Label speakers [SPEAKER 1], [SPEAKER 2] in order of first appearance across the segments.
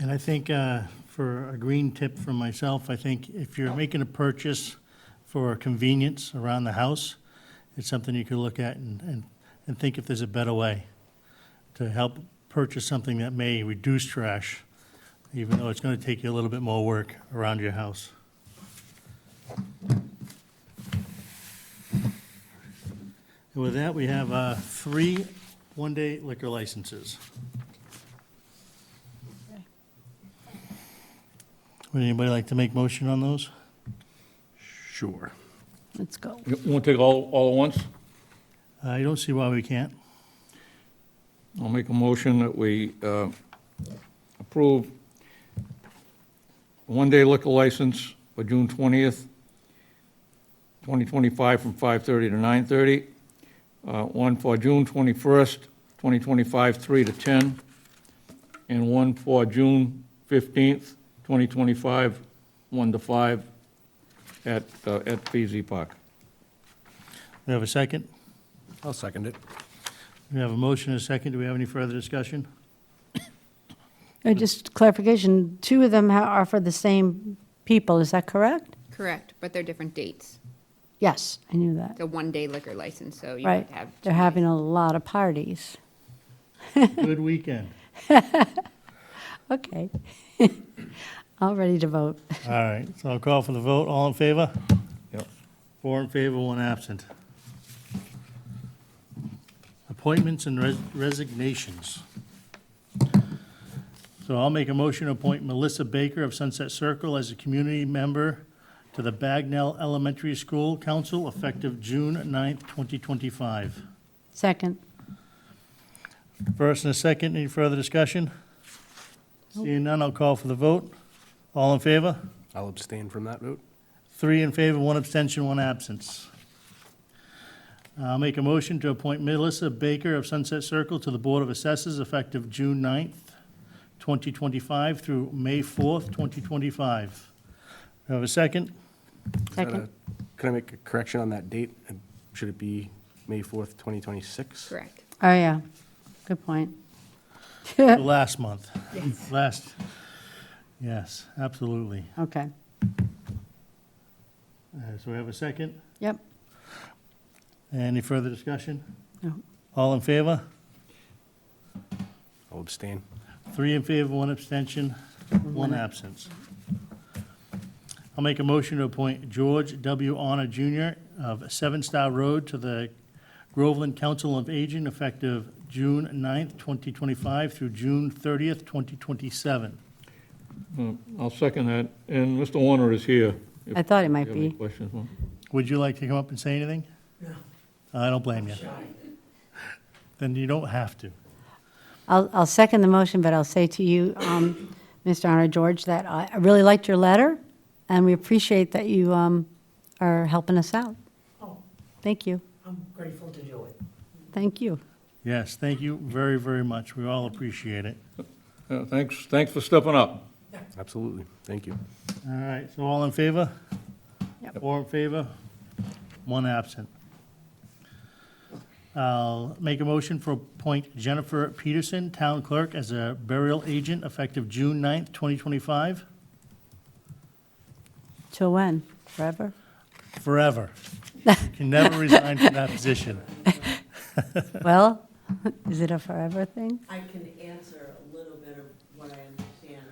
[SPEAKER 1] And I think uh, for a green tip from myself, I think if you're making a purchase for convenience around the house, it's something you could look at and, and, and think if there's a better way to help purchase something that may reduce trash, even though it's going to take you a little bit more work around your house. And with that, we have uh, three one-day liquor licenses. Would anybody like to make motion on those?
[SPEAKER 2] Sure.
[SPEAKER 3] Let's go.
[SPEAKER 2] You want to take all, all at once?
[SPEAKER 1] I Uh, don't see why we can't.
[SPEAKER 2] I'll make a motion that we uh, approve one-day liquor license for June 20th, 2025, from 5:30 to 9:30. Uh, One for June 21st, 2025, 3 to 10. And one for June 15th, 2025, 1 to 5 at, uh, at BZ Park.
[SPEAKER 1] We have a second?
[SPEAKER 4] I'll second it.
[SPEAKER 1] We have a motion and a second. Do we have any further discussion?
[SPEAKER 3] Uh, Just clarification, two of them ha- are for the same people, is that correct?
[SPEAKER 5] Correct, but they're different dates.
[SPEAKER 3] Yes, I knew that.
[SPEAKER 5] It's a one-day liquor license, so you
[SPEAKER 3] Right.
[SPEAKER 5] would have.
[SPEAKER 3] They're having a lot of parties.
[SPEAKER 1] Good weekend.
[SPEAKER 3] Okay. All ready to vote.
[SPEAKER 1] All right, so I'll call for the vote. All in favor?
[SPEAKER 2] Yep.
[SPEAKER 1] Four in favor, one absent. Appointments and res- resignations. So I'll make a motion to appoint Melissa Baker of Sunset Circle as a community member to the Bagnell Elementary School Council effective June 9th, 2025.
[SPEAKER 3] Second.
[SPEAKER 1] First and a second, any further discussion? Seeing none, I'll call for the vote. All in favor?
[SPEAKER 4] I'll abstain from that vote.
[SPEAKER 1] Three in favor, one abstention, one absence. I'll make a motion to appoint Melissa Baker of Sunset Circle to the Board of Assessors effective June 9th, 2025 through May 4th, 2025. Do I Have a second?
[SPEAKER 3] Second.
[SPEAKER 4] Can I make a correction on that date? And Should it be May 4th, 2026?
[SPEAKER 5] Correct.
[SPEAKER 3] Oh, yeah. Good point.
[SPEAKER 1] To Last month. Last, yes, absolutely.
[SPEAKER 3] Okay.
[SPEAKER 1] Uh, So we have a second.
[SPEAKER 3] Yep.
[SPEAKER 1] Any further discussion?
[SPEAKER 3] No.
[SPEAKER 1] All in favor?
[SPEAKER 4] I'll abstain.
[SPEAKER 1] Three in favor, one abstention, one absence. I'll make a motion to appoint George W. Honor Jr. of Seven Star Road to the Groveland Council of Aging effective June 9th, 2025 through June 30th, 2027.
[SPEAKER 2] Uh, I'll second that, and Mr. Warner is here. if
[SPEAKER 3] I thought it
[SPEAKER 2] you
[SPEAKER 3] might
[SPEAKER 2] have any
[SPEAKER 3] be.
[SPEAKER 2] questions. huh?
[SPEAKER 1] Would you like to come up and say anything? No. I don't blame you. Then you don't have to.
[SPEAKER 3] I'll, I'll second the motion, but I'll say to you, um, Mr. Honor George, that I I really liked your letter, and we appreciate that you um, are helping us out.
[SPEAKER 6] Oh,
[SPEAKER 3] Thank you.
[SPEAKER 6] I'm grateful to do it.
[SPEAKER 3] Thank you.
[SPEAKER 1] Yes, thank you very, very much. We all appreciate it.
[SPEAKER 2] Yeah, Thanks, thanks for stepping up.
[SPEAKER 4] Absolutely. Thank you.
[SPEAKER 1] All right, so all in favor?
[SPEAKER 3] Yep.
[SPEAKER 1] Four in favor, one absent. I'll make a motion for appoint Jennifer Peterson, Town Clerk, as a burial agent effective June 9th, 2025,
[SPEAKER 3] Till when? Forever?
[SPEAKER 1] forever. You Can never resign from that position.
[SPEAKER 3] Well, is it a forever thing?
[SPEAKER 6] I can answer a little bit of what I understand.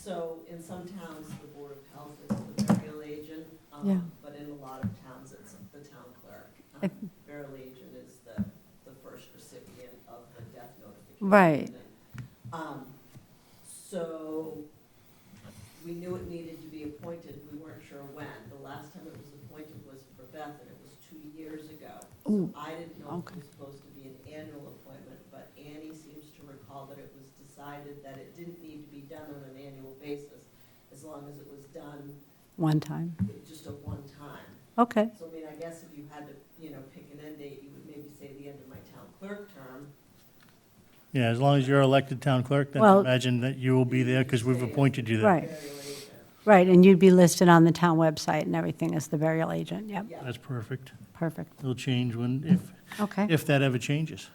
[SPEAKER 6] So in some towns, the Board of Health is the burial agent, um,
[SPEAKER 3] Yeah.
[SPEAKER 6] but in a lot of towns, it's the town clerk. Um, Burial agent is the, the first recipient of the death notification.
[SPEAKER 3] Right.
[SPEAKER 6] Um, So we knew it needed to be appointed, we weren't sure when. The last time it was appointed was for Beth, and it was two years ago. So
[SPEAKER 3] Ooh,
[SPEAKER 6] I didn't know if
[SPEAKER 3] okay.
[SPEAKER 6] it was supposed to be an annual appointment, but Annie seems to recall that it was decided that it didn't need to be done on an annual basis, as long as it was done
[SPEAKER 3] One time.
[SPEAKER 6] just at one time.
[SPEAKER 3] Okay,
[SPEAKER 6] So I mean, I guess if you had to, you know, pick an end date, you would maybe say the end of my town clerk term.
[SPEAKER 1] Yeah, as long as you're elected Town Clerk, then
[SPEAKER 3] Well-
[SPEAKER 1] imagine that you will be there because we've appointed you there.
[SPEAKER 3] right,
[SPEAKER 6] Burial agent,
[SPEAKER 3] right, and you'd be listed on the town website and everything as the burial agent, yep,
[SPEAKER 6] yeah.
[SPEAKER 1] That's perfect.
[SPEAKER 3] perfect,
[SPEAKER 1] It'll change when, if,
[SPEAKER 3] okay.
[SPEAKER 1] if that ever changes.